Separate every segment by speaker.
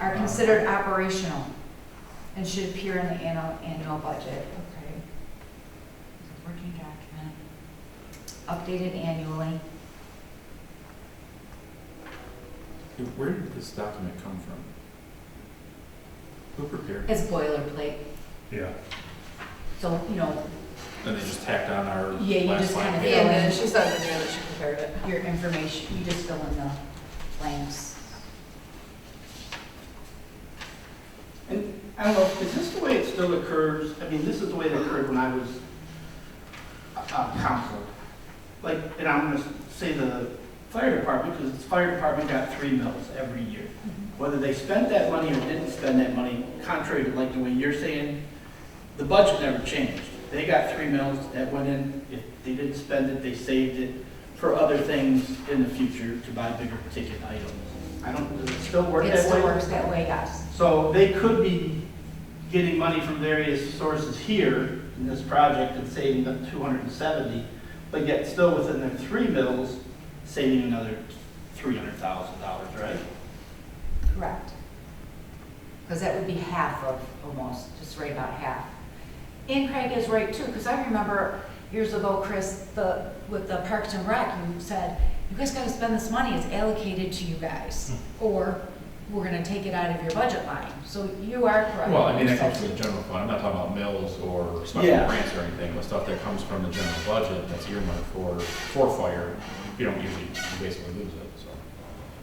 Speaker 1: are considered operational and should appear in the annual, annual budget,
Speaker 2: Okay.
Speaker 3: Working document.
Speaker 1: updated annually.
Speaker 4: Where did this document come from? Who prepared it?
Speaker 1: It's boilerplate,
Speaker 5: Yeah.
Speaker 1: so, you know,
Speaker 4: And they just tacked on our last line?
Speaker 1: Yeah, you just kinda
Speaker 4: here?
Speaker 1: did.
Speaker 2: And then she says in there that she prepared it.
Speaker 1: your information, you just fill in the blanks.
Speaker 6: And I don't know, is this the way it still occurs? I mean, this is the way it occurred when I was uh, council. Like, and I'm gonna say the fire department, because the fire department got three mills every year.
Speaker 1: Mm-hmm.
Speaker 6: Whether they spent that money or didn't spend that money, contrary to like the way you're saying, the budget never changed. They got three mills that went in, if they didn't spend it, they saved it for other things in the future to buy bigger ticket items. I don't, does it still work that
Speaker 1: It
Speaker 6: way?
Speaker 1: still works that way, yes.
Speaker 6: So they could be getting money from various sources here in this project and saving up 270, but yet still within their three mills, saving another $300,000, right?
Speaker 1: Correct. Because that would be half of, almost, just right about half. And Craig is right too, because I remember years ago, Chris, the, with the Parks and Rec, you said, you guys gotta spend this money, it's allocated to you guys,
Speaker 4: Hmm.
Speaker 1: or we're gonna take it out of your budget line. So you are correct.
Speaker 4: Well, I mean, that comes from the general fund, I'm not talking about mills or special
Speaker 6: Yeah.
Speaker 4: grants or anything, but stuff that comes from the general budget that's earmarked for, for fire, you don't usually, you basically lose it, so.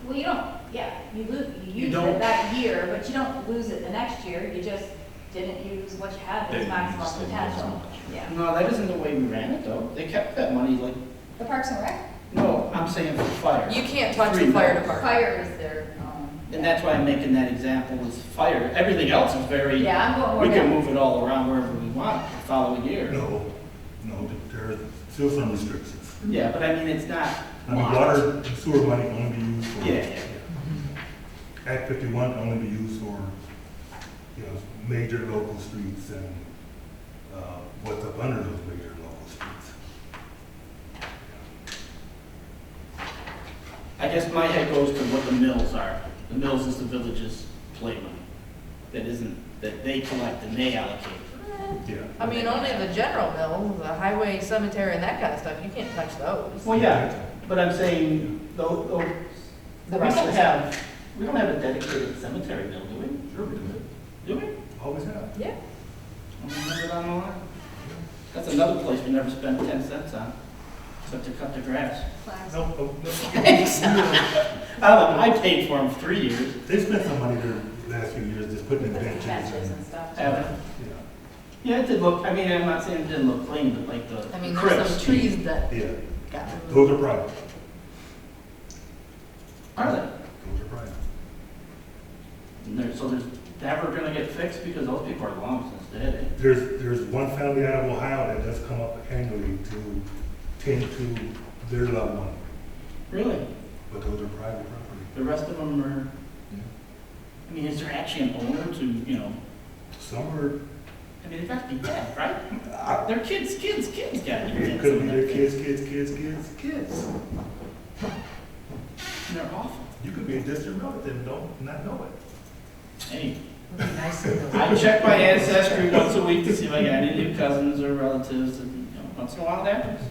Speaker 3: Well, you don't, yeah, you lose,
Speaker 6: You
Speaker 3: you use
Speaker 6: don't-
Speaker 3: it that year, but you don't lose it the next year, you just didn't use what you had as
Speaker 4: Didn't
Speaker 3: maximum
Speaker 4: use it as
Speaker 3: potential.
Speaker 4: much.
Speaker 3: Yeah.
Speaker 6: No, that isn't the way we ran it though. They kept that money like,
Speaker 3: The Parks and Rec,
Speaker 6: no, I'm saying for fire.
Speaker 2: You can't touch
Speaker 6: Three
Speaker 2: the fire
Speaker 6: mills.
Speaker 2: department.
Speaker 3: fire is their, um.
Speaker 6: And that's why I'm making that example with fire. Everything else is very, we
Speaker 3: Yeah, I'm going more
Speaker 6: can
Speaker 3: down.
Speaker 6: move it all around wherever we want the following year.
Speaker 5: No, no, there are still some restrictions.
Speaker 6: Yeah, but I mean, it's not.
Speaker 5: I mean, water and sewer money only be used for.
Speaker 6: Yeah, yeah, yeah.
Speaker 5: Act fifty-one only be used for, you know, major local streets and, uh, what's up under those major local streets.
Speaker 6: I guess my head goes to what the mills are. The mills is the village's play money. That isn't, that they collect and they allocate.
Speaker 5: Yeah.
Speaker 2: I mean, only the general mills, the highway, cemetery, and that kind of stuff, you can't touch those.
Speaker 6: Well, yeah, but I'm saying, though, though, we
Speaker 2: The
Speaker 6: don't
Speaker 2: rest of
Speaker 6: have, we don't have a dedicated cemetery mill, do we?
Speaker 5: Sure we do.
Speaker 6: Do we?
Speaker 5: Always have.
Speaker 2: Yeah.
Speaker 6: I don't remember that on the line. That's another place we never spent ten cents on, except to cut the grass.
Speaker 5: No, no, no.
Speaker 6: Oh, I paid for them three years.
Speaker 5: They spent some money there last few years just putting in
Speaker 3: Put
Speaker 5: benches.
Speaker 3: some benches
Speaker 5: and-
Speaker 3: and stuff.
Speaker 6: Yeah,
Speaker 5: Yeah,
Speaker 6: it did look, I mean, I'm not saying it didn't look clean, but like the
Speaker 2: I mean, there's some
Speaker 6: crisp.
Speaker 2: trees that
Speaker 5: yeah,
Speaker 2: got
Speaker 5: those are private,
Speaker 6: Are they?
Speaker 5: those are private.
Speaker 6: And there- So there's, never gonna get fixed because those people are long since dead. eh?
Speaker 5: There's, there's one family out of Ohio that does come up annually to tend to their loved one,
Speaker 6: Really?
Speaker 5: but those are private property.
Speaker 6: The rest of them are, I mean, is there actually an owner to, you know,
Speaker 5: Some are,
Speaker 6: I mean, they've got to be dead, right?
Speaker 5: I-
Speaker 6: Their kids, kids, kids got to be dead.
Speaker 5: it could be
Speaker 6: some of
Speaker 5: their
Speaker 6: them.
Speaker 5: kids, kids, kids, kids.
Speaker 6: Kids. And they're awful.
Speaker 5: You could be a distant relative and don't, not know it.
Speaker 6: Hey,
Speaker 1: Would be nice if it was-
Speaker 6: I check my ancestry once a week to see if I got any new cousins or relatives and, you know, once in a while that happens.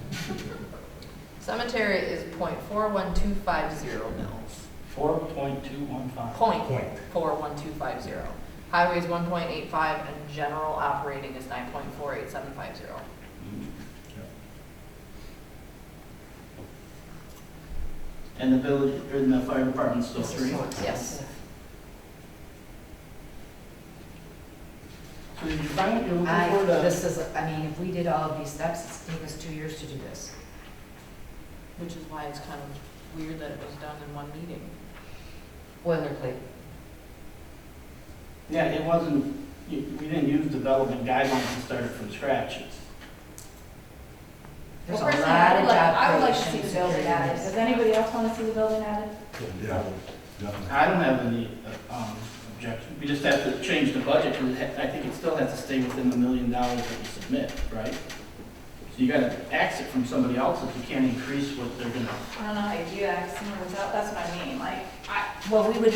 Speaker 2: Cemetery is point four one two five zero mills,
Speaker 6: Four point two one five.
Speaker 2: point
Speaker 5: Point.
Speaker 2: four one two five zero. Highway is one point eight five, and general operating is nine point four eight seven five zero.
Speaker 6: And the village, or the fire department's still three?
Speaker 2: Yes.
Speaker 6: So did you find what you're
Speaker 1: I,
Speaker 6: looking for? the-
Speaker 1: this is, I mean, if we did all of these steps, it's taken us two years to do this.
Speaker 2: Which is why it's kind of weird that it was done in one meeting.
Speaker 1: Boilerplate.
Speaker 6: Yeah, it wasn't, you- we didn't use development guidelines and started from scratch. It's-
Speaker 1: There's a
Speaker 3: Well,
Speaker 1: lot of
Speaker 3: personally, I would like- I would
Speaker 1: job
Speaker 3: like to see the
Speaker 1: creation
Speaker 3: building added. Does anybody else want to see the building added?
Speaker 5: Yeah, definitely.
Speaker 6: I don't have any uh, um, objection. We just have to change the budget, because I think it still has to stay within the million dollars that we submit, right? So you gotta ax it from somebody else if you can't increase what they're gonna
Speaker 3: I don't know how you do that, 'cause someone was out, that's what I mean, like, I,
Speaker 1: Well, we would